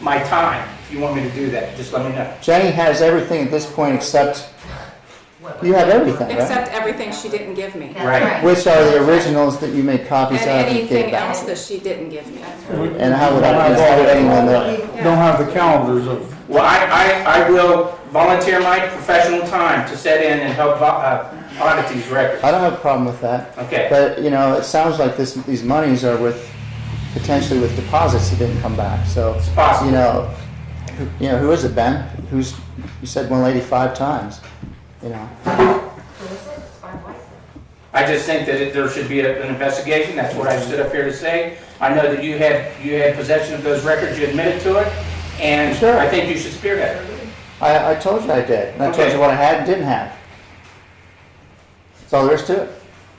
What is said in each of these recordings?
my time. If you want me to do that, just let me know. Jenny has everything at this point except, you have everything, right? Except everything she didn't give me. That's Right. Which are the originals that you made copies of And and gave anything back? else that she didn't give me. And how would I, how would anyone know? Don't have the calendars of, Well, I, I, I will volunteer my professional time to set in and help vo- uh, audit these records. I don't have a problem with that. Okay, But, you know, it sounds like this, these monies are with, potentially with deposits that didn't come back, so. it's possible. You know, who- you know, who is it, Ben? Who's, you said one lady five times, you know? I just think that it- there should be a- an investigation, that's what I stood up here to say. I know that you had, you had possession of those records, you admitted to it, and Sure. I think you should spearhead it. I, I told you I did, and I told Okay. you what I had and didn't have. That's all there is to it.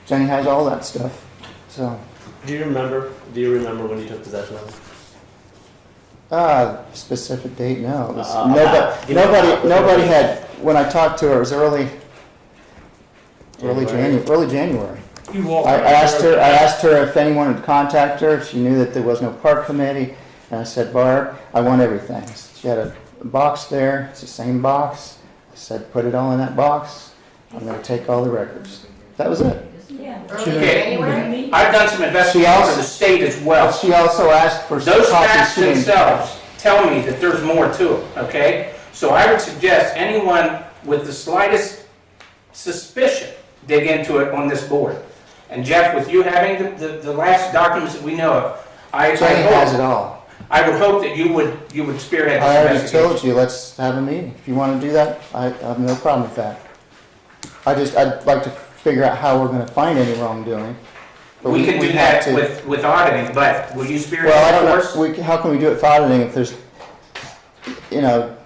Jenny has all that stuff, so. Do you remember? Do you remember when you took possession of it? Uh, specific date, no. It was- Uh, Nobody, you know, nobody, uh, nobody had, when I talked to her, it was early, early January. Janu, early January. you all. I I asked her, I asked her if anyone would contact her, if she knew that there was no park committee, and I said, Barb, I want everything. She had a box there, it's the same box. I said, put it all in that box, I'm gonna take all the records. That was it. Early Okay. January? I've done some investigation for the state as well. She also asked for Those copies. facts She didn't- themselves tell me that there's more to it, okay? So I would suggest anyone with the slightest suspicion dig into it on this board. And Jeff, with you having the, the, the last documents that we know of, I, I Jenny has it hope, all. I would hope that you would, you would spearhead I this already investigation. told you, let's have a meeting. If you want to do that, I, I have no problem with that. I just, I'd like to figure out how we're gonna find any wrongdoing. but We can do have that to- with, with auditing, but will you spearhead Well, I it don't for us? know, we, how can we do it without auditing if there's, you know,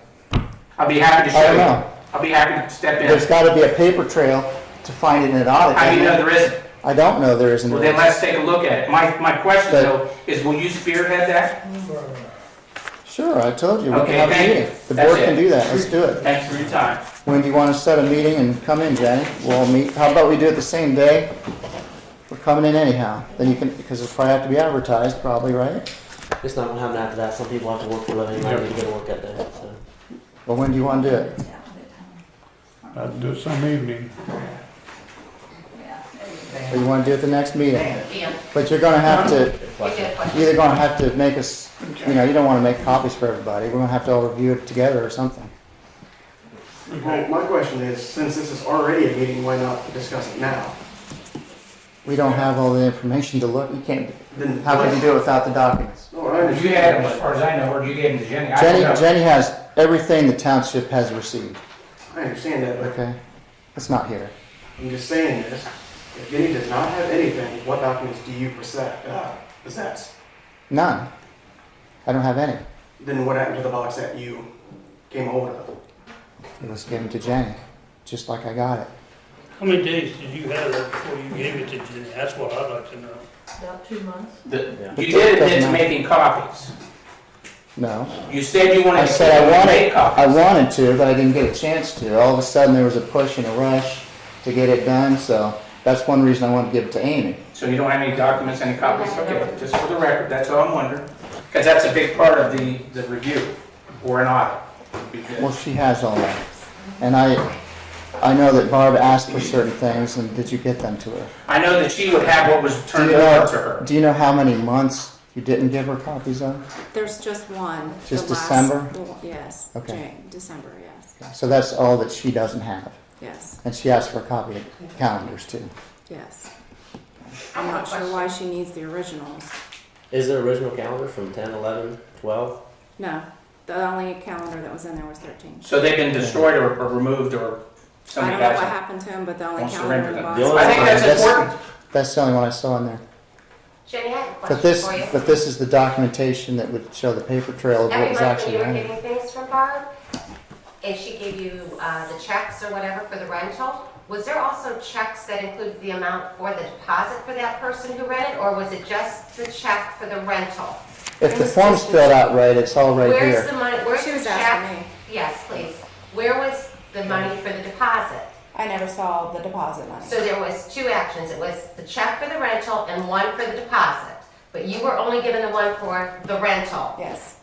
I'll be happy to I show you. don't know. I'll be happy to step there's in. gotta be a paper trail to find it in an audit. I mean, no, there isn't. I don't know there isn't. Well, then let's take a look at it. My, my question But- though is, will you spearhead that? Sure, I told you, we can Okay, have a thank you. meeting. The That's board can it. do that, let's do it. Thanks for your time. When do you wanna set a meeting and come in, Jenny? We'll all meet, how about we do it the same day? We're coming in anyhow, then you can, because it'll probably have to be advertised probably, right? It's not gonna happen after that. Some people have to work for a living. I need to go to work that day. So. Well, when do you want to do it? I'd do some uh, evening. Or you want to do it the next meeting? Yeah. But you're gonna have to, You get a question. either gonna have to make us, you know, you don't want to make copies for everybody. We're gonna have to all review it together or something. Well, my question is, since this is already a meeting, why not discuss it now? We don't have all the information to look, you can't, Then how can you do it without the documents? No, I understand. You had them, as far as I know, or you gave them to Jenny? I Jenny, don't know. Jenny has everything the township has received, I understand that, but okay? It's not here. I'm just saying this. If Jenny does not have anything, what documents do you possess? Uh, possess? None. I don't have any. Then what happened to the box that you came hold of? Let's give them to Jenny, just like I got it. How many days did you have that before you gave it to Jenny? That's what I'd like to know. About two months. The- Yeah. You did admit to Doesn't matter. making copies. No. You said you wanted I to said I to make wanted, I copies. wanted to, but I didn't get a chance to. All of a sudden, there was a push and a rush to get it done, so that's one reason I wanted to give it to Amy. So you don't have any documents, any copies? Okay, just for the record, that's all I'm wondering. Because that's a big part of the, the review or an audit. would be good. Well, she has all that. And I, I know that Barb asked for certain things, and did you get them to her? I know that she would have what was Do turned you over know? to her. Do you know how many months you didn't give her copies of? There's just one. the Just last- December? the one- Yes. Okay. Jan- December, yes, So that's all that she doesn't have. yes, And she asked for a copy of calendars too. yes. I'm not sure why she needs the originals. Is there original calendar from 10, 11, 12? No, the only calendar that was in there was 13. So they've been destroyed or, or removed or I somebody don't know got what them. happened to him, but the only Wants to calendar in render the them. box. The only I think that's That's- important. That's the only one I saw in there. Jenny, I have a But question this, for you. but this is the documentation that would show the paper trail of what Every was month actually when you were in it. getting things from Barb, and she gave you uh, the checks or whatever for the rental, was there also checks that included the amount for the deposit for that person who rented, or was it just the check for the rental? If the form's filled out right, it's all right Where's here. the money, where's She the was check? asking me. Yes, please. Where was the money for the deposit? I never saw the deposit money. So there was two actions. It was the check for the rental and one for the deposit. But you were only given the one for the rental. Yes,